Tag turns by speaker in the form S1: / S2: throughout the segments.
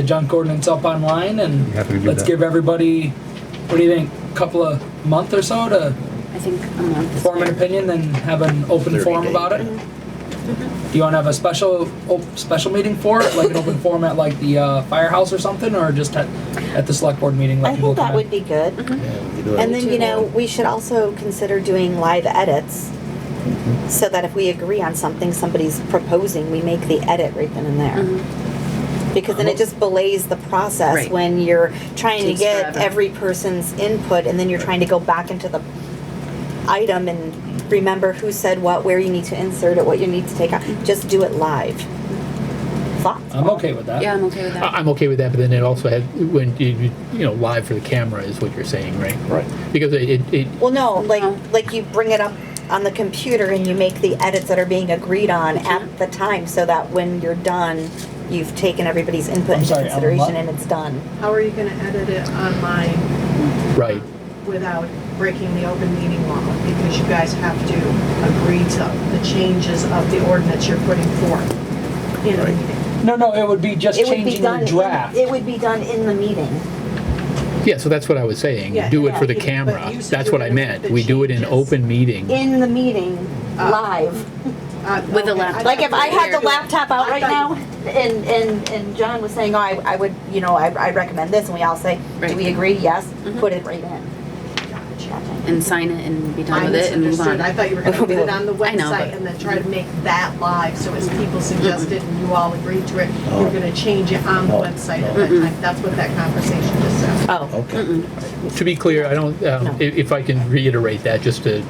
S1: the junk ordinance up online and
S2: Happy to do
S1: let's
S2: that.
S1: give everybody, what do you think, couple of month or so to
S3: I think a month. is
S1: form an
S3: fair.
S1: opinion, then have an open
S4: 30
S1: forum
S4: day.
S1: about it? Mm-hmm. Do you wanna have a special, op- special meeting for it, like an open forum at like the uh, firehouse or something, or just at, at the select board meeting? let
S5: I
S1: people
S5: think that
S1: come in?
S5: would be good.
S1: Mm-hmm.
S4: Yeah, we could do it.
S5: And then, you know, we should also consider doing live edits
S1: Mm-hmm.
S5: so that if we agree on something somebody's proposing, we make the edit right then and there. Because then it just belays the process
S3: Mm-hmm. Right.
S5: when you're trying to
S3: Takes
S5: get
S3: forever.
S5: every person's input and then you're trying to go back into the item and remember who said what, where you need to insert it, what you need to take out.
S3: Mm-hmm.
S5: Just do it live. Thoughts?
S1: I'm okay with that.
S3: Yeah, I'm okay with
S6: I-
S3: that.
S6: I'm okay with that, but then it also had, when, you, you- you know, live for the camera is what you're saying, right?
S2: Right.
S6: Because it, it- it,
S5: Well, no, like,
S3: No.
S5: like you bring it up on the computer and you make the edits that are being agreed on at the time so that when you're done, you've taken everybody's input
S1: I'm
S5: into
S1: sorry, Ellen, what?
S5: consideration and it's done.
S7: How are you gonna edit it online
S6: right,
S7: without breaking the open meeting law? Because you guys have to agree to the changes of the ordinance you're putting forth in a
S4: Right.
S7: meeting.
S1: No, no, it would be just
S5: It would be
S1: changing
S5: done,
S1: the
S5: in-
S1: draft.
S5: it would be done in the meeting.
S6: yeah, so that's what I was saying,
S7: Yeah,
S6: do it for
S7: yeah,
S6: the
S7: but
S6: camera,
S7: you said
S6: that's
S7: you're
S6: what I
S7: gonna make
S6: meant,
S7: the
S6: we do it in
S7: changes.
S6: open meeting.
S5: In the meeting,
S7: Uh,
S5: live.
S7: Uh,
S3: With a
S7: okay,
S3: laptop.
S7: I
S5: Like if I had the
S7: thought-
S5: laptop out
S7: I
S5: right now
S7: thought-
S5: and, and, and John was saying, oh, I, I would, you know, I, I recommend this and we all say, do
S3: Right.
S5: we agree? Yes,
S3: Mhm.
S5: put it right in.
S3: And sign it and be
S7: I
S3: done with it and move
S7: misunderstood.
S3: on.
S7: I thought you were gonna put it on the
S3: I know,
S7: website
S3: but-
S7: and then try to make that live, so
S5: Mm-hmm.
S7: as people suggested and you all agreed to it,
S4: Oh.
S7: you're gonna change it on the
S4: No.
S7: website at that time. That's what that conversation just said.
S5: Oh,
S4: Okay.
S6: To be clear, I don't, um, i- if I can reiterate that, just to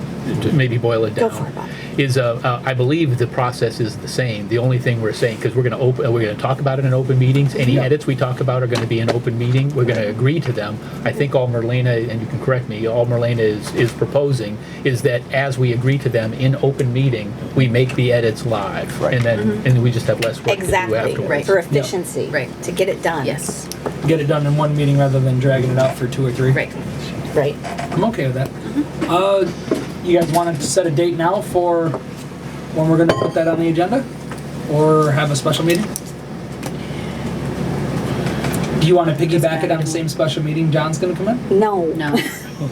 S6: to maybe boil it
S5: Go
S6: down.
S5: for it, Bob.
S6: Is, uh, uh, I believe the process is the same, the only thing we're saying, because we're gonna open, we're gonna talk about it in open meetings, any edits we talk about are gonna be in open meeting, we're gonna agree to them. I think all Merlina, and you can correct me, all Merlina is, is proposing, is that as we agree to them in open meeting, we make the edits live.
S4: Right.
S6: And then, and we just have less work to do
S5: Mm-hmm. exactly,
S6: afterwards.
S3: Right.
S5: for efficiency,
S3: Right.
S5: to get it done.
S3: Yes,
S1: Get it done in one meeting rather than dragging it out for two or three.
S3: right.
S5: Right.
S1: I'm okay with that. Uh, you guys want to set a date now for when we're going to put that on the agenda, or have a special meeting? Do you want to piggyback it on the same special meeting John's going to come in?
S5: No.
S3: No.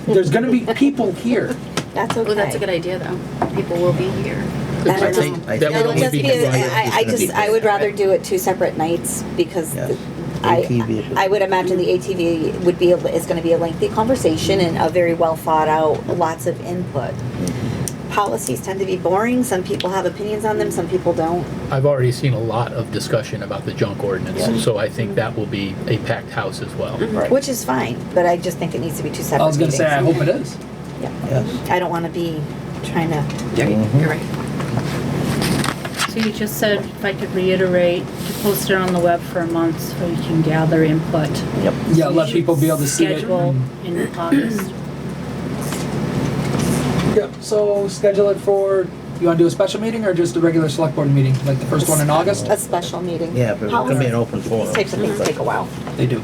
S1: There's going to be people here.
S5: That's okay.
S3: Well, that's a good idea though. People will be here.
S5: That
S6: I
S5: is-
S6: think
S4: I think-
S6: that would
S5: It'll
S4: It'll
S6: only
S5: just
S6: be
S5: be,
S4: a-
S6: combined.
S5: I, I just, I would rather do it two separate nights because
S4: Yes.
S5: the- I,
S4: ATV.
S5: I would imagine the ATV would be, a- is gonna be a lengthy conversation and a very well thought out, lots of input.
S4: Mm-hmm.
S5: Policies tend to be boring, some people have opinions on them, some people don't.
S6: I've already seen a lot of discussion about the junk
S4: Yeah.
S6: ordinance, so I think that will be a packed house as well.
S4: Right.
S5: Which is fine, but I just think it needs to be
S1: I
S5: two separate
S1: was going to
S5: meetings.
S1: say I hope it is.
S4: Yes.
S5: I don't wanna be trying to,
S3: Right,
S4: Mhm.
S3: You're right.
S8: So you just said, if I could reiterate, to post it on the web for a month so you can gather input.
S4: Yep.
S1: Yeah, let people be able to see it.
S8: Schedule in August.
S1: Yep. So schedule it for. You want to do a special meeting or just a regular select board meeting, like the first one in August?
S5: a special meeting.
S4: Yeah, but it's gonna be an
S5: Policies-
S4: open forum.
S5: These types of things take a while,
S1: They do.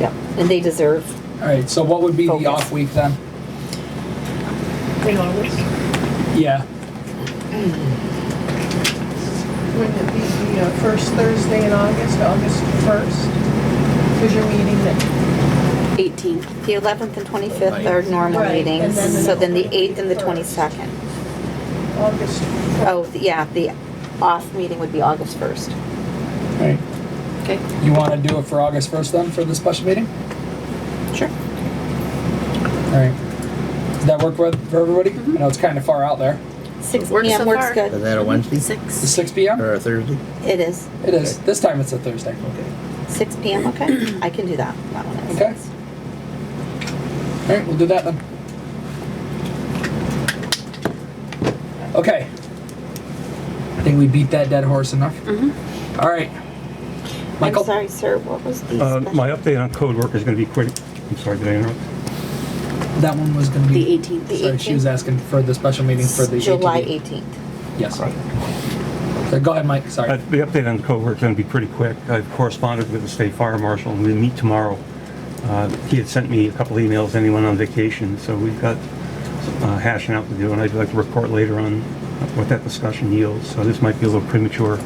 S5: yeah, and they deserve
S1: All right. So what would be the off week then?
S7: In August?
S1: Yeah.
S7: Wouldn't it be the uh, first Thursday in August, August 1st? Because you're meeting the,
S3: 18.
S5: The 11th and 25th are normal
S7: Right, and
S5: meetings,
S7: then the
S5: so then the 8th and the
S7: 21st.
S5: 22nd.
S7: August 1st.
S5: Oh, th- yeah, the off meeting would be August 1st.
S1: All right.
S3: Okay.
S1: You want to do it for August 1st then, for the special meeting?
S5: Sure.
S1: All right. Does that work with, for everybody?
S5: Mm-hmm.
S1: I know it's kind of far out there.
S5: Six
S3: Works
S5: PM
S3: so
S5: works
S3: far.
S4: Is
S5: good.
S4: that a Wednesday
S1: It's
S3: Six.
S1: 6 p.m.?
S4: or a Thursday?
S5: It is.
S1: It is. This time it's a Thursday.
S4: Okay.
S5: Six PM, okay. I can do that. That one is.
S1: Okay. All right, we'll do that then. Okay. I think we beat that dead horse enough. All right.
S5: Mm-hmm. I'm
S1: Michael?
S5: sorry, sir, what was the
S2: Uh, My
S5: special?
S2: update on code work is going to be quick. I'm sorry, did I interrupt?
S1: That one was going to
S3: The
S1: be.
S3: 18th.
S5: The
S1: Sorry, she was
S5: 18th?
S1: asking for the special meeting for the.
S5: July
S1: ATV.
S5: 18th.
S1: Yes. So go ahead, Mike.
S2: Uh,
S1: Sorry.
S2: The update on the code work is going to be pretty quick. I've corresponded with the state fire marshal, and we meet tomorrow. Uh, He had sent me a couple emails, and he went on vacation, so we've got uh, hashing out to do, and I'd like to report later on what that discussion yields. So this might be a little premature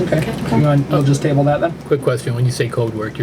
S9: Okay. You want, you'll just table that then?
S1: Quick question, when you say code work, you're